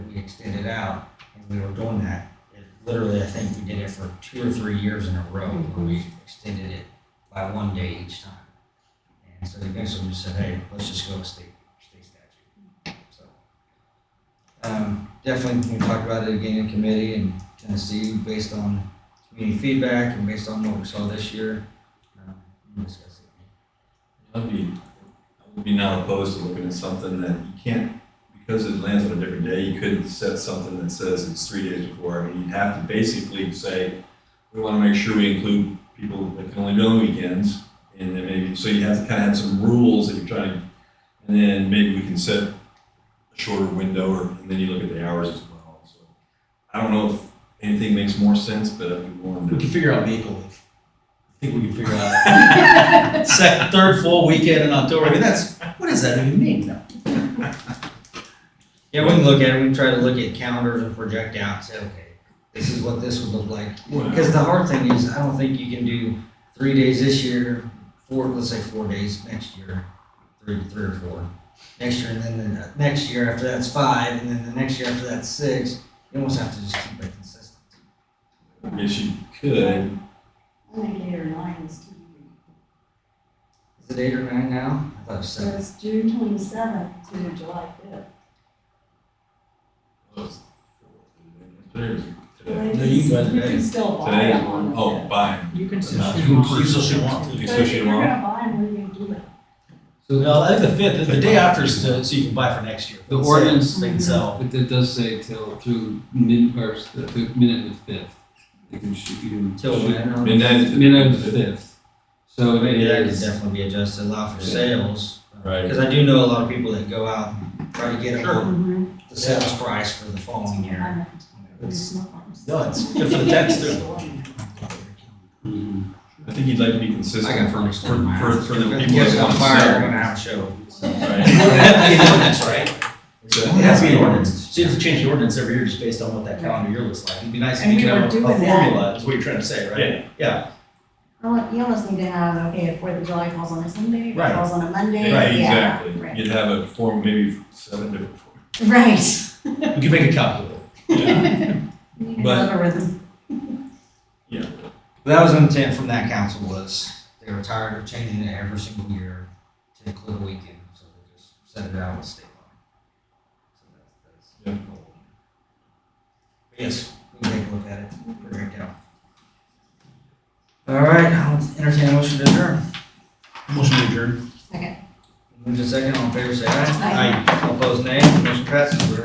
extend it out, and we were doing that. It- Literally, I think we did it for two or three years in a row, where we extended it by one day each time. And so eventually we said, hey, let's just go with state, state statute, so. Um, definitely, we talked about it again in committee in Tennessee, based on community feedback and based on what we saw this year. Um, we'll discuss it. I'd be, I would be not opposed to looking at something that you can't, because it lands on a different day, you couldn't set something that says it's three days before. I mean, you'd have to basically say, we want to make sure we include people that can only do on weekends. And then maybe, so you have to kind of have some rules that you're trying, to- and then maybe we can set a shorter window or, and then you look at the hours as well. So I don't know if anything makes more sense, but I'd be willing We to. can figure out Maple Leaf. I think we can figure out second, third full weekend in October. I mean, that's what does that even mean? No. Yeah, we can look at it, we can try to look at calendars and project out, and say, okay, this is what this would look like. Because the hard thing is, I don't think you can do three days this year, four, let's say four days next year, three, three or four. Next year, and then the next year after that's five, and then the next year after that's six. You almost have to just keep it consistent. I guess you could, I think eight or nine is too many. Is it eight or nine now? I thought it was So seven. it's June twenty-seventh to July fifth. Today. No, you can go You today. can still buy Today is them one, on oh, the bye. You can still shoot them off. You still shoot them off. You fifth. still shoot them But if you're off? gonna buy them, we're gonna do that. So no, I think the fifth, the day after is the, so you can buy for next year. The ordinance- They can sell. But that does say till through mid, or s- the fif- minute of the fifth. You can shoot, you can Till shoot- then, I don't- Midnight. to- Minute of the fifth. So it Maybe that could is- definitely be adjusted, allow for Yeah. sales. Right. Because I do know a lot of people that go out, and try to get Sure. a- the sales price for the following year. I know. It's- There's no farms. No, it's good for the tax too. Mhm. I think you'd like to be I got consistent for, furnished for, in my for, house. for the If people it's that want on fire, we're to gonna have a show. sell. You Right. don't have to be an ordinance, right? So- It has to be an ordinance. So you have to change the ordinance every year just based on what that calendar year looks like. It'd be nice if And you we could were have a a doing that. formula, is what you're trying to say, right? Yeah. Well, Oh, you almost need to have, okay, if Fourth of July falls on a Sunday, if it Right. falls on a Monday, Yeah, yeah. exactly. You'd have a form, maybe seven different forms. Right. We can make a calculator. Yeah, You can But- algorithm. yeah. But that was an intent from that council was they were tired of changing it every single year to include a weekend, so they just set it out with state law. So that's, that's the goal. But Yes, we can take a look at it, figure it out. All right, I'll entertain a motion to adjourn. Motion to adjourn. Move to second, all in favor, say aye. Aye. All opposed, nay. Motion passes.